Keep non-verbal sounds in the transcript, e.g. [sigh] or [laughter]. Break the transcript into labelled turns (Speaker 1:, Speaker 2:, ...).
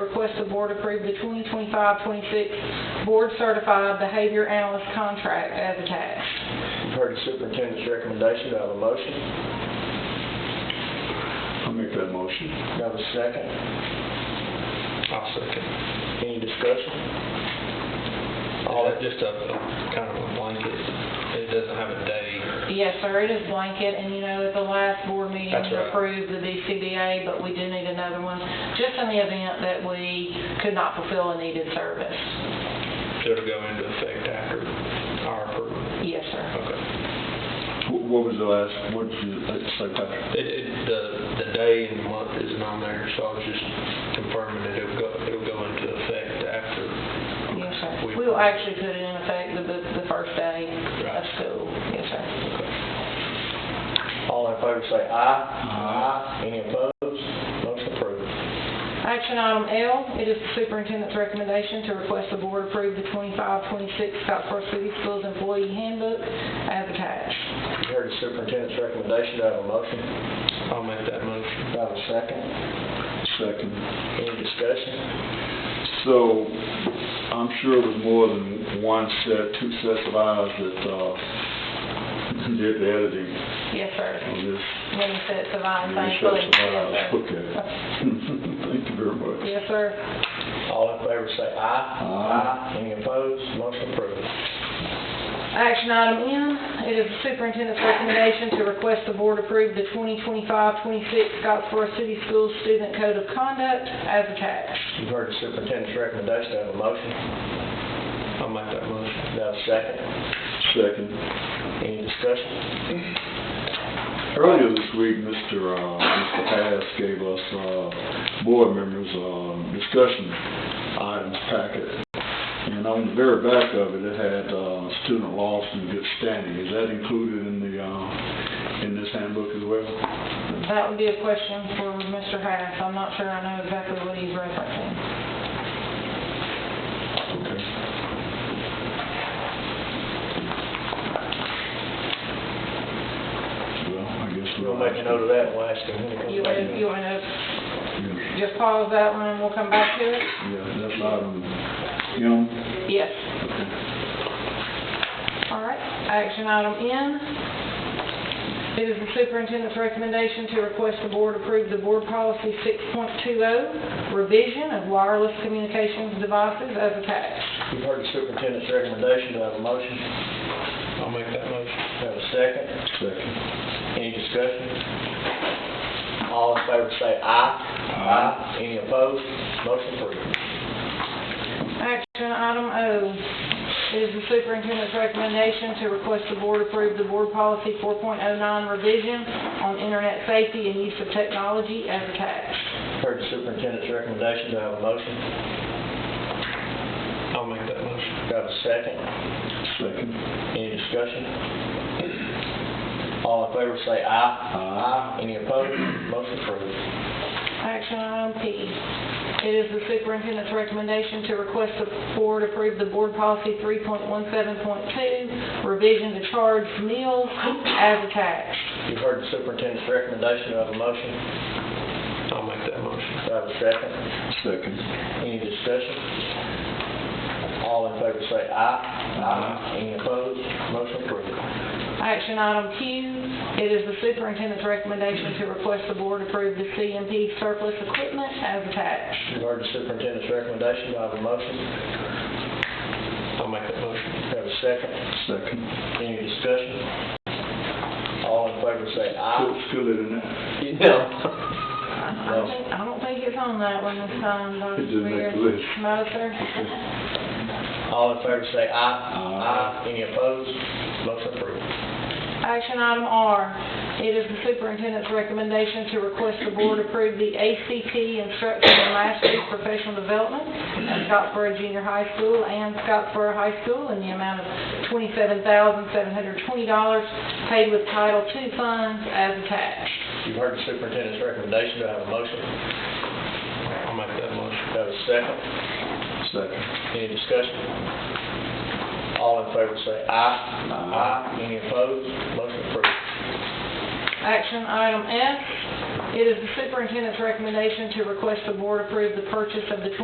Speaker 1: request the board approve the 2025-26 Board Certified Behavior Analyst Contract as attached.
Speaker 2: You've heard the superintendent's recommendation, do I have a motion?
Speaker 3: I'll make that motion.
Speaker 2: Do I have a second?
Speaker 4: I'll second.
Speaker 2: Any discussion?
Speaker 4: All that, just a, a kind of a blanket, it doesn't have a day.
Speaker 1: Yes, sir, it is blanket, and you know, at the last board meeting,
Speaker 4: That's
Speaker 1: we
Speaker 4: right.
Speaker 1: approved the BCBA, but we do need another one, just in the event that we could not fulfill a needed service.
Speaker 4: It'll go into effect after our approval.
Speaker 1: Yes, sir.
Speaker 4: Okay.
Speaker 3: Wh- What was the last, what did you uh, say, Patrick?
Speaker 4: It, it, the, the day and month isn't on there, so I was just confirming that it'll go, it'll go into effect after.
Speaker 1: Yes, sir.
Speaker 4: We-
Speaker 1: We will actually put it in effect the, the the first day of
Speaker 4: Right.
Speaker 1: school. Yes, sir.
Speaker 2: All in favor say aye. Aye. Any opposed? Motion approved.
Speaker 1: Action item L, it is the superintendent's recommendation to request the board approve the 25-26 Scottsboro City Schools Employee Handbook as attached.
Speaker 2: You've heard the superintendent's recommendation, do I have a motion?
Speaker 4: I'll make that motion.
Speaker 2: Do I have a second?
Speaker 3: Second.
Speaker 2: Any discussion?
Speaker 3: So, I'm sure it was more than one set, two sets of eyes that, uh, did the editing
Speaker 1: Yes, sir.
Speaker 3: on this.
Speaker 1: Many sets of eyes,
Speaker 3: Many
Speaker 1: thankfully.
Speaker 3: sets of eyes.
Speaker 1: Yes, sir.
Speaker 3: Okay. [laughs] Thank you very much.
Speaker 1: Yes, sir.
Speaker 2: All in favor say aye.
Speaker 3: Aye.
Speaker 2: Any opposed? Motion approved.
Speaker 1: Action item N, it is the superintendent's recommendation to request the board approve the 2025-26 Scottsboro City Schools Student Code of Conduct as attached.
Speaker 2: You've heard the superintendent's recommendation, do I have a motion?
Speaker 4: I'll make that motion.
Speaker 2: Do I have a second?
Speaker 3: Second.
Speaker 2: Any discussion?
Speaker 3: Earlier this week, Mr. uh, Mr. Haas gave us, uh, board members, um, discussion items packet. And on the very back of it, it had, uh, student loss and good standing. Is that included in the, uh, in this handbook as well?
Speaker 1: That would be a question for Mr. Hass. I'm not sure I know exactly what he's referencing.
Speaker 3: Okay. Well, I guess we'll.
Speaker 2: We'll make a note of that, and we'll ask him when he
Speaker 1: You
Speaker 2: comes back.
Speaker 1: want, you want to
Speaker 3: Yeah,
Speaker 1: just pause that one and we'll come back to it?
Speaker 3: Yeah, that's item, you know,
Speaker 1: Yes. All right, action item N. It is the superintendent's recommendation to request the board approve the board policy 6.20, oh, revision of wireless communications devices as attached.
Speaker 2: You've heard the superintendent's recommendation, do I have a motion?
Speaker 4: I'll make that motion.
Speaker 2: Do I have a second?
Speaker 3: second.
Speaker 2: Any discussion? All in favor say aye. Aye. Any opposed? Motion approved.
Speaker 1: Action item O. It is the superintendent's recommendation to request the board approve the board policy 4.09 revision on internet safety and use of technology as attached.
Speaker 2: Heard the superintendent's recommendation, do I have a motion?
Speaker 4: I'll make that motion.
Speaker 2: Do I have a second?
Speaker 3: Second.
Speaker 2: Any discussion? All in favor say aye. Aye. Any opposed? Motion approved.
Speaker 1: Action item P. It is the superintendent's recommendation to request the board approve the board policy 3.17.2 revision to charge meals as attached.
Speaker 2: You've heard the superintendent's recommendation, do I have a motion?
Speaker 4: I'll make that motion.
Speaker 2: Do I have a second?
Speaker 3: Second.
Speaker 2: Any discussion? All in favor say aye. Aye. Any opposed? Motion approved.
Speaker 1: Action item Q, it is the superintendent's recommendation to request the board approve the CMP surplus equipment as attached.
Speaker 2: You've heard the superintendent's recommendation, do I have a motion?
Speaker 4: I'll make that motion.
Speaker 2: Do I have a second?
Speaker 3: Second.
Speaker 2: Any discussion? All in favor say aye.
Speaker 3: Still, still in that.
Speaker 2: No.
Speaker 1: I don't think- I don't think it's on that one this time, Dr.
Speaker 3: It didn't make the
Speaker 1: Spear.
Speaker 3: list.
Speaker 1: No, sir.
Speaker 2: All in favor say aye.
Speaker 3: Aye.
Speaker 2: Any opposed? Motion approved.
Speaker 1: Action item R, it is the superintendent's recommendation to request the board approve the ACT instruction and mastery professional development at Scottsboro Junior High School and Scottsboro High School in the amount of $27,720 paid with Title II funds as attached.
Speaker 2: You've heard the superintendent's recommendation, do I have a motion?
Speaker 4: I'll make that motion.
Speaker 2: Do I have a second?
Speaker 3: Second.
Speaker 2: Any discussion? All in favor say aye.
Speaker 3: Aye.
Speaker 2: Any opposed? Motion approved.
Speaker 1: Action item F, it is the superintendent's recommendation to request the board approve the purchase of the